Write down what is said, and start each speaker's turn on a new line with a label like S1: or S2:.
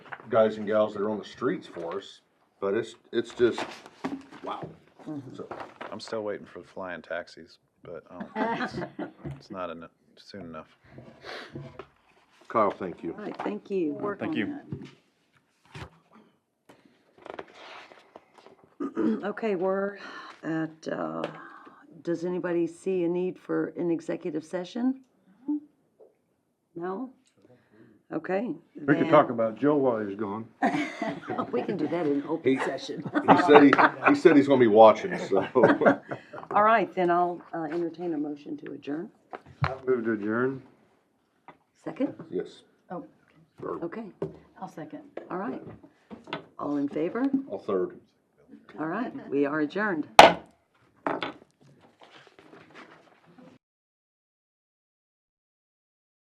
S1: guys and gals that are on the streets for us, but it's, it's just, wow. So,
S2: I'm still waiting for the flying taxis, but I
S3: Uh,
S2: don't think it's, it's not enough, soon enough.
S1: Kyle, thank you.
S3: All right, thank you. Work
S2: Thank
S3: on
S2: you.
S3: that. Okay, we're at, uh, does anybody see a need for an executive session? No? Okay.
S4: We could talk about Joe while he's gone.
S3: about. We can do that in open session.
S1: He said he, he said he's gonna be watching, so.
S3: All right, then I'll uh, entertain a motion to adjourn.
S4: Move to adjourn.
S3: Second?
S1: Yes,
S5: Oh,
S3: Okay,
S5: I'll second.
S3: all right. All in favor?
S1: I'll third.
S3: All right, we are adjourned.